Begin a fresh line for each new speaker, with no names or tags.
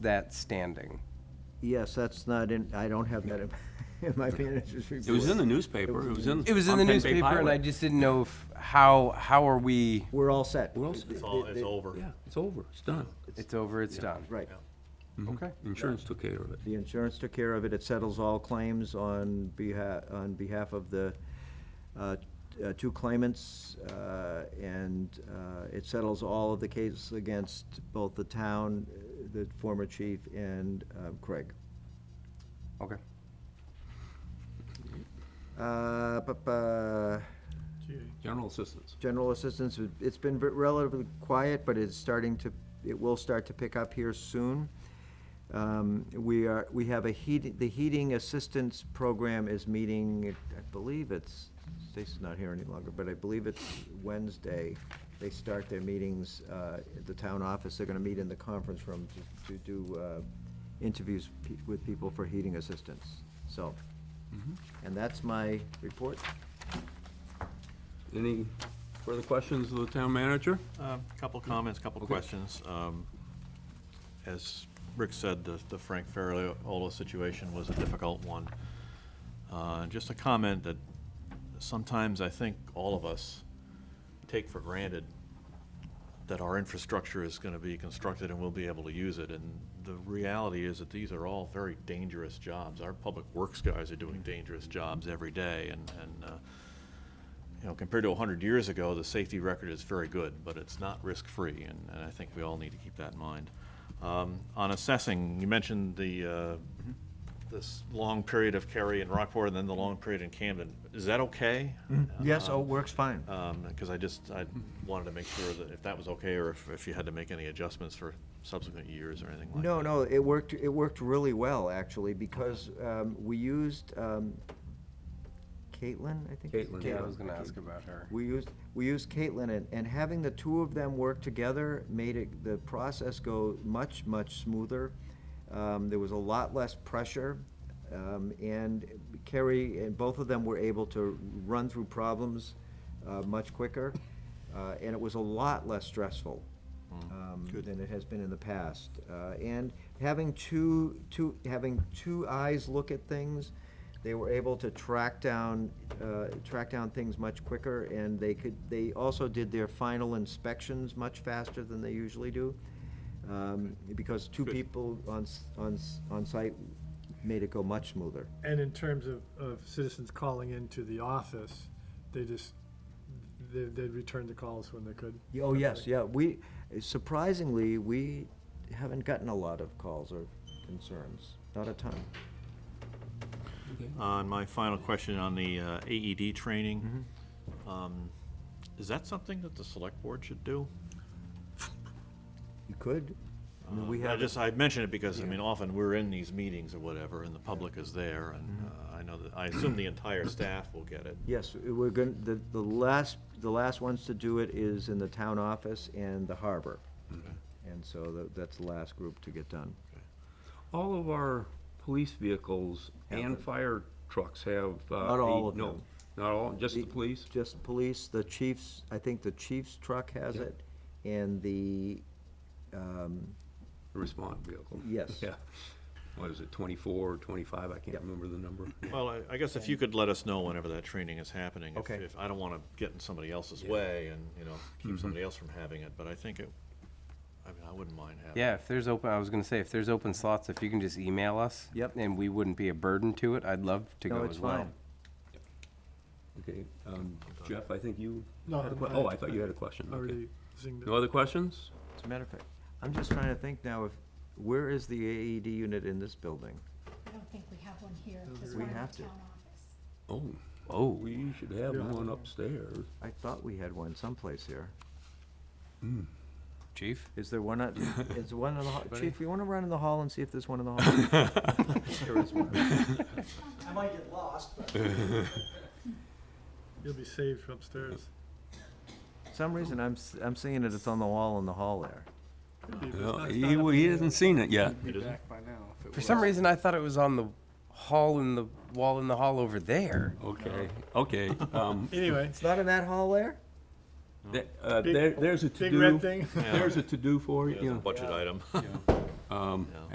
that standing.
Yes, that's not in, I don't have that in in my manager's report.
It was in the newspaper, it was in.
It was in
on
the
Penn Bay
newspaper, and I
Pilot.
just didn't know if, how, how are we,
We're all set.
We're all set.
It's all, it's over.
Yeah, it's over, it's done.
it's over, it's done. Mm-hmm.
Right.
Okay.
Insurance took care of it.
The insurance took care of it. It settles all claims on behalf, on behalf of the uh, t- uh, two claimants, uh, and uh, it settles all of the cases against both the town, uh, the former chief, and um, Craig.
Okay.
Uh, bu- bu-
General assistance.
General assistance, it's been re- relatively quiet, but it's starting to, it will start to pick up here soon. Um, We are, we have a heat, the heating assistance program is meeting, I believe it's, Stacy's not here any longer, but I believe it's Wednesday. They start their meetings uh, at the town office. They're gonna meet in the conference room to- to do uh, interviews pe- with people for heating assistance, so. And that's my report.
Any further questions of the town manager?
A Um, Couple comments, couple
Okay.
questions. Um, As Rick said, the the Frank Ferriola situation was a difficult one. Uh, Just a comment that sometimes I think all of us take for granted that our infrastructure is going to be constructed and we'll be able to use it. And the reality is that these are all very dangerous jobs. Our public works guys are doing dangerous jobs every day, and, and uh, you know, compared to 100 years ago, the safety record is very good, but it's not risk-free, and, and I think we all need to keep that in mind. Um, on assessing, you mentioned the, uh, this long period of Cary and Rockport, and then the long period in Camden. Is that okay? Uh,
Yes, oh, works fine.
Because Um, I just, I wanted to make sure that if that was okay, or if, if you had to make any adjustments for subsequent years or anything like
No,
that.
no, it worked, it worked really well, actually, because um, we used um, Caitlin, I think.
Caitlin,
Yeah, I was gonna ask about her.
We used, we used Caitlin, and, and having the two of them work together made it, the process go much, much smoother. Um, There was a lot less pressure, um, and Kerry, and both of them were able to run through problems uh, much quicker, uh, and it was a lot less stressful
Hmm.
um, than it has been in the past. Uh, And having two, two, having two eyes look at things, they were able to track down, uh, track down things much quicker, and they could, they also did their final inspections much faster than they usually do, um, because two
Good.
people on, s- on, s- on site made it go much smoother.
And in terms of, of citizens calling into the office, they just, they, they'd return the calls when they could.
Oh, yes, yeah, we, surprisingly, we haven't gotten a lot of calls or concerns, not a ton.
Uh, and my final question on the uh, AED training.
Mm-hmm.
Um, Is that something that the select board should do?
You could, I mean, we
I
have.
just, I mention it because, I mean, often we're in these meetings or whatever, and the public is there, and
Mm-hmm.
uh, I know that, I assume the entire staff will get it.
Yes, we're going, the, the last, the last ones to do it is in the town office and the harbor. And so tha- that's the last group to get done.
All of our police vehicles and fire trucks have. uh,
Not all
a-
of
no,
them.
Not all, just the police?
Just police, the chief's, I think the chief's truck has it, and the, um,
The Respond vehicle.
Yes.
Yeah. What is it, 24 or 25? I can't
Yep.
remember the number.
Well, I- I guess if you could let us know whenever that training is happening. if-
Okay.
If, I don't want to get in somebody else's way and, you know, keep somebody else from having it, but I think it, I mean, I wouldn't mind having it.
Yeah, if there's open, I was gonna say, if there's open slots, if you can just email us.
Yep.
And we wouldn't be a burden to it, I'd love to
no,
go
it's
as well.
fine.
Okay, um, Jeff, I think you
No,
had a que- oh, I thought you had a question. okay.
Already zinged it.
No other questions?
As a matter of fact, I'm just trying to think now if, where is the AED unit in this building?
I don't think we have one here, there's
We
one in the town
have to.
office.
Oh,
Oh.
we should have
Yeah.
one upstairs.
I thought we had one someplace here.
Chief?
Is there one at, is there one in the hall? Chief, you wanna run in the hall and see if there's one in the hall? There is one.
I might get lost, but
You'll be saved from upstairs.
For some reason, I'm, s- I'm seeing that it's on the wall in the hall there.
No, He, he hasn't seen it yet.
For some reason, I thought it was on the hall in the, wall in the hall over there.
Okay, okay. um,
Anyway,
It's not in that hall there?
that- uh,
Big-
there- There's a to-do.
big red thing.
There's a to-do for
As a
you.
budget item.
Um,
Yeah.